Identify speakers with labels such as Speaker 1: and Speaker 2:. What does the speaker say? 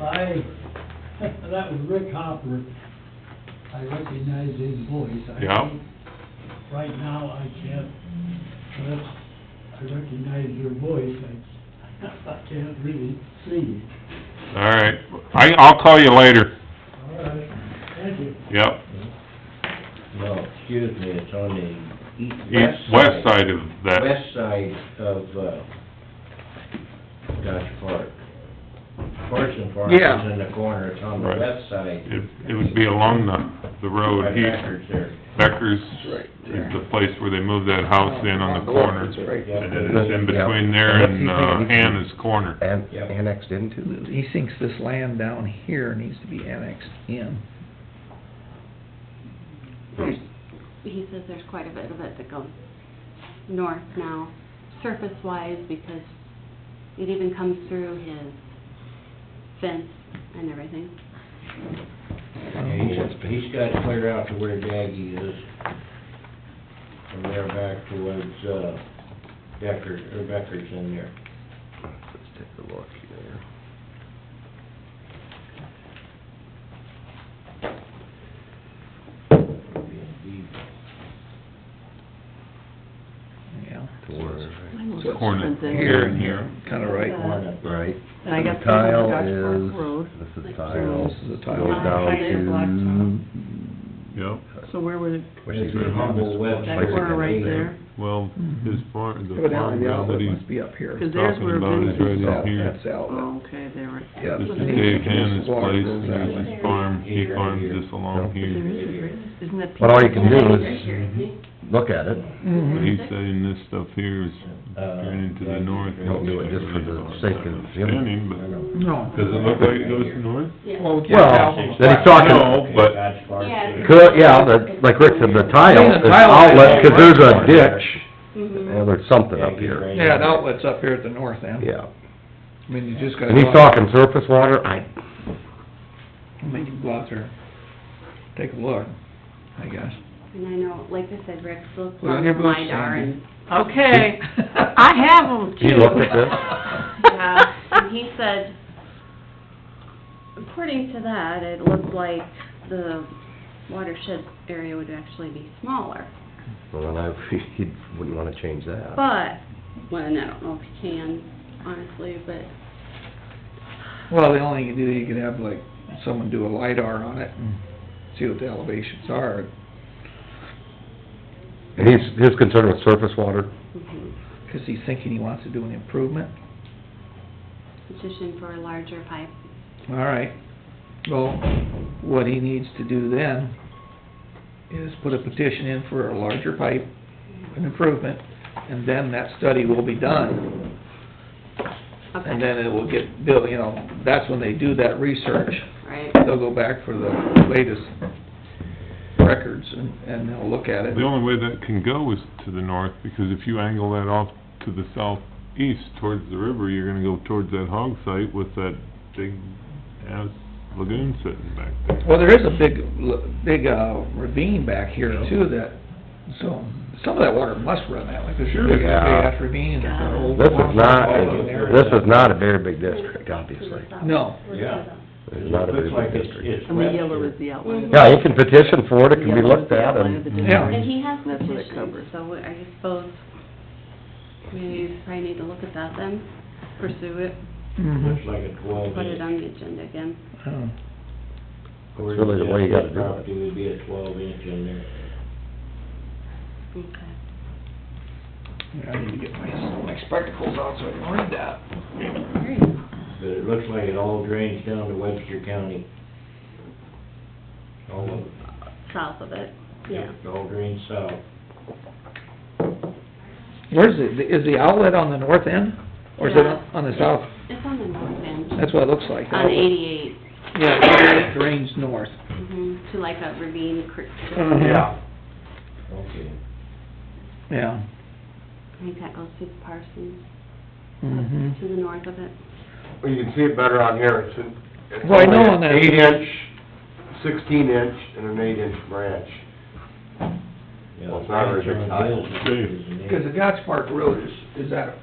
Speaker 1: I, that was Rick Hopper. I recognize his voice. I
Speaker 2: Yeah.
Speaker 1: think Right now, I can't, but I recognize your voice. I, I can't really see you.
Speaker 2: All right, I, I'll call you later,
Speaker 1: All right, thank you.
Speaker 2: yep,
Speaker 3: No, excuse me, it's on the east,
Speaker 2: east,
Speaker 3: west
Speaker 2: west
Speaker 3: side.
Speaker 2: side of that,
Speaker 3: West side of, uh, Dodge Park. Fortune Park is
Speaker 4: Yeah.
Speaker 3: in the corner, it's on the
Speaker 2: Right.
Speaker 3: west side.
Speaker 2: it, it would be along the, the
Speaker 3: By
Speaker 2: road here.
Speaker 3: Becker's there.
Speaker 2: Becker's
Speaker 4: Right
Speaker 2: is
Speaker 4: there.
Speaker 2: the place where they moved that house in on the corner.
Speaker 4: That's right.
Speaker 3: Yeah.
Speaker 2: And then it's in between there and, uh, Hannah's corner.
Speaker 5: An-
Speaker 3: Yep.
Speaker 5: Annexed into?
Speaker 4: He thinks this land down here needs to be annexed in.
Speaker 6: There's, he says there's quite a bit of it that goes north now, surface-wise, because it even comes through his fence and everything.
Speaker 3: Yeah, he's- He's got it clear out to where Daggy is. From there back towards, uh, Decker, or Becker's in there.
Speaker 5: Let's take a look here.
Speaker 4: Yeah.
Speaker 5: To where?
Speaker 7: Mine was
Speaker 4: So it's
Speaker 2: Corner,
Speaker 7: different than-
Speaker 2: here and here.
Speaker 4: Kinda right.
Speaker 3: Corner.
Speaker 5: Right.
Speaker 7: And I
Speaker 5: The
Speaker 7: guess this is
Speaker 5: tile
Speaker 7: Dodge Park
Speaker 5: is-
Speaker 7: Road.
Speaker 5: This is
Speaker 7: Like,
Speaker 5: tile.
Speaker 4: This is a tile.
Speaker 5: Goes down
Speaker 7: Right there, blacktop.
Speaker 5: to...
Speaker 2: Yep,
Speaker 7: So where would, it-
Speaker 5: Which is
Speaker 3: This is Humble West.
Speaker 7: that corner right there?
Speaker 2: well, his farm, the farm
Speaker 4: Evidently, the
Speaker 2: ground that
Speaker 4: outlet must
Speaker 2: he's
Speaker 4: be up here.
Speaker 7: Because there's
Speaker 2: talking
Speaker 7: where
Speaker 2: about is
Speaker 7: business,
Speaker 2: right in here.
Speaker 4: That's the outlet.
Speaker 7: oh, okay, there, right.
Speaker 4: Yeah.
Speaker 2: This is
Speaker 7: But
Speaker 2: Dave
Speaker 4: Yeah.
Speaker 2: Hannah's
Speaker 4: Water
Speaker 2: place,
Speaker 4: goes
Speaker 2: and
Speaker 4: out.
Speaker 2: here's his farm, he farms this along
Speaker 7: But there
Speaker 2: here.
Speaker 7: is a great, isn't that?
Speaker 5: But all you can
Speaker 7: Peter's?
Speaker 5: do is-
Speaker 6: Right
Speaker 5: Mm-hmm.
Speaker 6: here, isn't he?
Speaker 5: Look at it.
Speaker 6: Mm-hmm.
Speaker 2: But
Speaker 4: Mhm.
Speaker 2: he's saying this stuff here is draining to the north.
Speaker 5: Uh, Don't do it just for the sake of-
Speaker 2: Standing, but,
Speaker 4: No.
Speaker 2: does it look like it goes north?
Speaker 6: Yeah.
Speaker 5: Well, then he's talking,
Speaker 2: No, but
Speaker 3: Dodge Park.
Speaker 6: Yeah.
Speaker 5: could, yeah, the- like Rick said, the tile
Speaker 4: Yeah, the
Speaker 5: is
Speaker 4: tile
Speaker 5: outlet,
Speaker 4: is-
Speaker 5: because there's a ditch,
Speaker 6: Mhm.
Speaker 5: and there's something up here.
Speaker 4: Yeah, the outlet's up here at the north end.
Speaker 5: Yeah.
Speaker 4: I mean, you just gotta.
Speaker 5: And he's
Speaker 4: go out-
Speaker 5: talking surface water, I,
Speaker 4: I mean, you can go out there, take a look, I guess.
Speaker 6: And I know, like I said, Rick's looked
Speaker 4: Well,
Speaker 6: on
Speaker 4: you're
Speaker 6: the
Speaker 4: both
Speaker 6: LiDAR
Speaker 4: Sandy.
Speaker 6: and,
Speaker 7: Okay, I have them too.
Speaker 5: he looked at this.
Speaker 6: yeah, and he said, according to that, it looked like the watershed area would actually be smaller.
Speaker 5: Well, I, he wouldn't wanna change that.
Speaker 6: But, well, and I don't know if you can, honestly, but,
Speaker 4: Well, the only thing you do, you could have like, someone do a LiDAR on it and see what the elevations are.
Speaker 5: And he's, his concern with surface water,
Speaker 6: mhm.
Speaker 4: Cause he's thinking he wants to do an improvement.
Speaker 6: petition for a larger pipe.
Speaker 4: All right, well, what he needs to do then is put a petition in for a larger pipe, an improvement, and then that study will be done. And
Speaker 6: Okay,
Speaker 4: then it will get built, you know, that's when they do that research.
Speaker 6: right.
Speaker 4: They'll go back for the latest records and, and they'll look at it.
Speaker 2: The only way that can go is to the north, because if you angle that off to the southeast towards the river, you're gonna go towards that hog site with that big ass lagoon sitting back there.
Speaker 4: Well, there is a big, l- big uh, ravine back here too that, so, some of that water must run that way, because there's a big big
Speaker 5: Yeah.
Speaker 4: ass ravine and there's an old.
Speaker 5: this is not,
Speaker 4: waterfall in there.
Speaker 5: this is not a very big district, obviously.
Speaker 4: No.
Speaker 3: Yeah.
Speaker 5: It's not a
Speaker 3: Looks
Speaker 5: very
Speaker 3: like
Speaker 5: big
Speaker 3: it's,
Speaker 5: district.
Speaker 3: it's
Speaker 7: And the
Speaker 3: west
Speaker 7: yellow
Speaker 3: here.
Speaker 7: is the outline. of-
Speaker 5: Yeah, you can petition for it, it can be
Speaker 7: Yellow is
Speaker 5: look
Speaker 7: the
Speaker 5: at,
Speaker 7: outline
Speaker 5: and
Speaker 7: of the
Speaker 4: Yeah.
Speaker 6: And
Speaker 7: district.
Speaker 6: he has
Speaker 7: That's what it
Speaker 6: petitions,
Speaker 7: covers.
Speaker 6: so we- I suppose we probably need to look at that then, pursue it,
Speaker 4: Mm-hmm.
Speaker 3: Looks like a twelve
Speaker 6: put
Speaker 3: inch.
Speaker 6: it on the agenda again.
Speaker 4: Oh.
Speaker 5: It's really the way you gotta do it.
Speaker 3: Property would be a twelve inch in there.
Speaker 6: Okay.
Speaker 4: Yeah, I need to get my, my spectacles out so I can read that.
Speaker 6: Very good.
Speaker 3: But it looks like it all drains down to Webster County. All of it.
Speaker 6: South of it, yeah.
Speaker 3: It all drains south.
Speaker 4: Where's it, is the outlet on the north end, or is it
Speaker 6: Yeah.
Speaker 4: on the south?
Speaker 6: It's on the north end,
Speaker 4: That's what it looks like.
Speaker 6: on eighty-eight,
Speaker 4: Yeah, it drains north.
Speaker 6: mhm, to like a ravine creek.
Speaker 4: Yeah.
Speaker 3: Okay.
Speaker 4: Yeah.
Speaker 6: I think that goes through Parsons,
Speaker 4: Mm-hmm.
Speaker 6: to the north of it.
Speaker 8: Well, you can see it better on here, it's an... it's
Speaker 4: Well, I know
Speaker 8: only an
Speaker 4: on that-
Speaker 8: Eight inch, sixteen inch, and an eight inch branch.
Speaker 3: Yeah,
Speaker 8: Well, it's not very big
Speaker 3: it's on
Speaker 8: tile.
Speaker 3: Gill's, it's an eight.
Speaker 4: Because the Gotch Park Road is, is at a